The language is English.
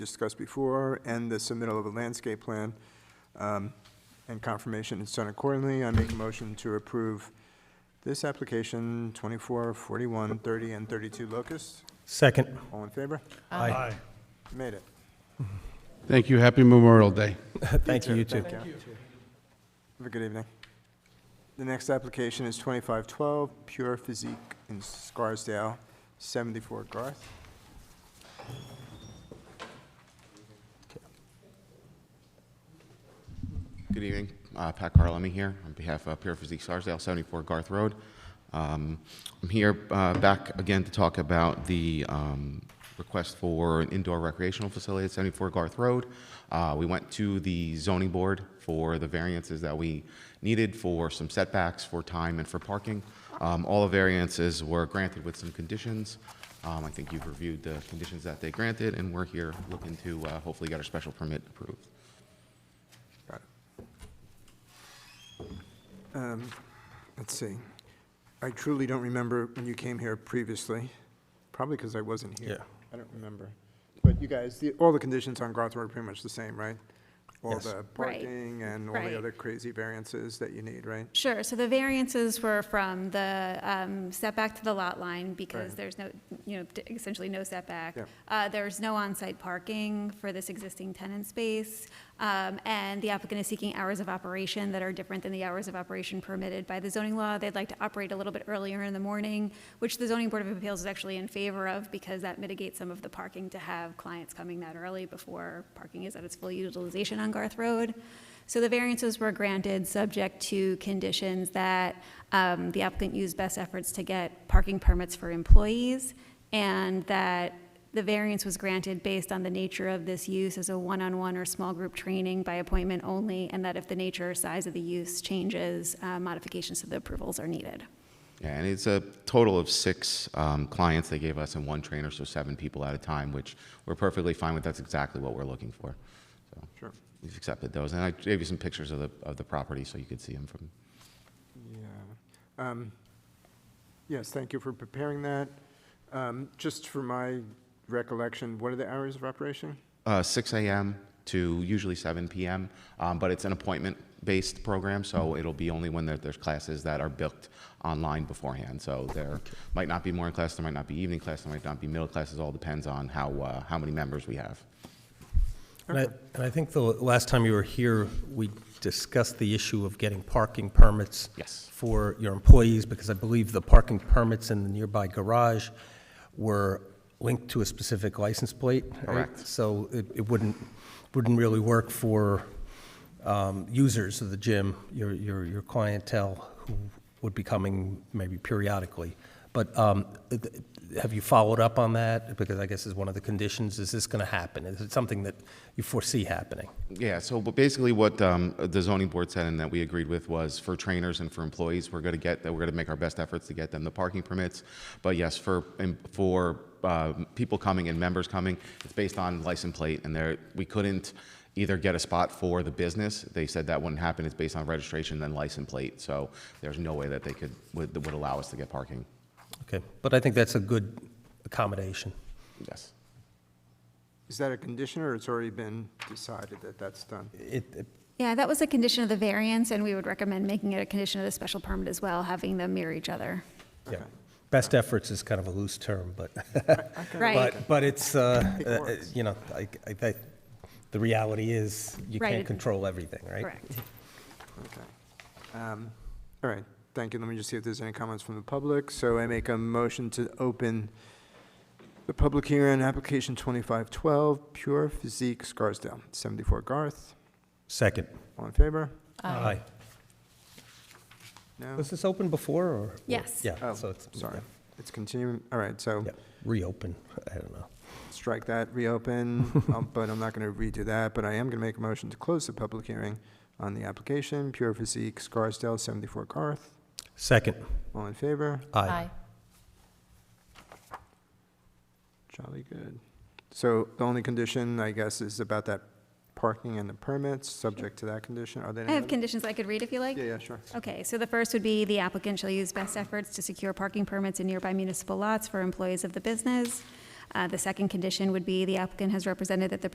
discussed before, and the submittal of a landscape plan, um, and confirmation is done accordingly. I make a motion to approve this application, 24, 41, 30, and 32 Locust. Second. All in favor? Aye. Made it. Thank you. Happy Memorial Day. Thank you, you too. Thank you. Have a good evening. The next application is 2512 Pure Physique in Scarsdale, 74 Garth. Good evening. Uh, Pat Carlemy here on behalf of Pure Physique Scarsdale, 74 Garth Road. Um, I'm here uh, back again to talk about the um, request for an indoor recreational facility at 74 Garth Road. Uh, We went to the zoning board for the variances that we needed for some setbacks, for time, and for parking. Um, All the variances were granted with some conditions. Um, I think you've reviewed the conditions that they granted, and we're here looking to uh, hopefully get our special permit approved. Um, Let's see. I truly don't remember when you came here previously, probably because I wasn't here. Yeah. I don't remember. But you guys, the- all the conditions on Garth Road are pretty much the same, right? All Yes. the parking and all Right. the other crazy variances that you need, right? Sure, so the variances were from the um, setback to the lot line, because Right. there's no, you know, d- essentially no setback. Yeah. Uh, There's no on-site parking for this existing tenant space, um, and the applicant is seeking hours of operation that are different than the hours of operation permitted by the zoning law. They'd like to operate a little bit earlier in the morning, which the zoning board of appeals is actually in favor of, because that mitigates some of the parking to have clients coming that early before parking is at its full utilization on Garth Road. So the variances were granted, subject to conditions that um, the applicant used best efforts to get parking permits for employees, and that the variance was granted based on the nature of this use as a one-on-one or small group training by appointment only, and that if the nature or size of the use changes, uh, modifications to the approvals are needed. Yeah, and it's a total of six um, clients they gave us and one trainer, so seven people at a time, which we're perfectly fine with. That's exactly what we're looking for. So Sure. we've accepted those, and I gave you some pictures of the of the property so you could see them from. Yeah. Um, Yes, thank you for preparing that. Um, Just for my recollection, what are the hours of operation? Uh, 6 a.m. to usually 7 p.m., um, but it's an appointment-based program, so it'll be only when there, there's classes that are booked online beforehand. So there might not be morning class, there might not be evening class, there might not be middle classes. All depends on how uh, how many members we have. And I, and I think the last time you were here, we discussed the issue of getting parking permits. Yes. For your employees, because I believe the parking permits in the nearby garage were linked to a specific license plate. right? Correct. So it, it wouldn't, wouldn't really work for, um, users of the gym, your, your, your clientele who would be coming maybe periodically. But, um, th- have you followed up on that? Because I guess is one of the conditions, is this gonna happen? Is it something that you foresee happening? Yeah, so but basically what um, the zoning board said and that we agreed with was for trainers and for employees, we're going to get, that we're going to make our best efforts to get them the parking permits. But yes, for, and for uh, people coming and members coming, it's based on license plate and there, we couldn't either get a spot for the business. They said that wouldn't happen. It's based on registration then license plate. So there's no way that they could, would, would allow us to get parking. Okay, but I think that's a good accommodation. Yes. Is that a condition, or it's already been decided that that's done? It, it- Yeah, that was a condition of the variance, and we would recommend making it a condition of the special permit as well, having them mirror each other. yeah, best efforts is kind of a loose term, but, Right, but, but it's, uh, It uh, works. you know, I, I, think the reality is, you Right. can't control everything, right? correct. Okay. Um, All right, thank you. Let me just see if there's any comments from the public. So I make a motion to open the public hearing, on application 2512, Pure Physique Scarsdale, 74 Garth. Second. All in favor? Um, Aye. No? Was this open before, or? Yes. Yeah, Oh, so it's. sorry. It's continuing, all right, so yeah, Reopen, I don't know. strike that, reopen, um, but I'm not going to redo that, but I am going to make a motion to close the public hearing on the application, Pure Physique Scarsdale, 74 Garth. Second. All in favor? Aye. Jolly good. So the only condition, I guess, is about that parking and the permits, subject to that condition, are there I any? have other- conditions I could read if you like. Yeah, yeah, sure. Okay, so the first would be the applicant shall use best efforts to secure parking permits in nearby municipal lots for employees of the business. Uh, The second condition would be the applicant has represented that the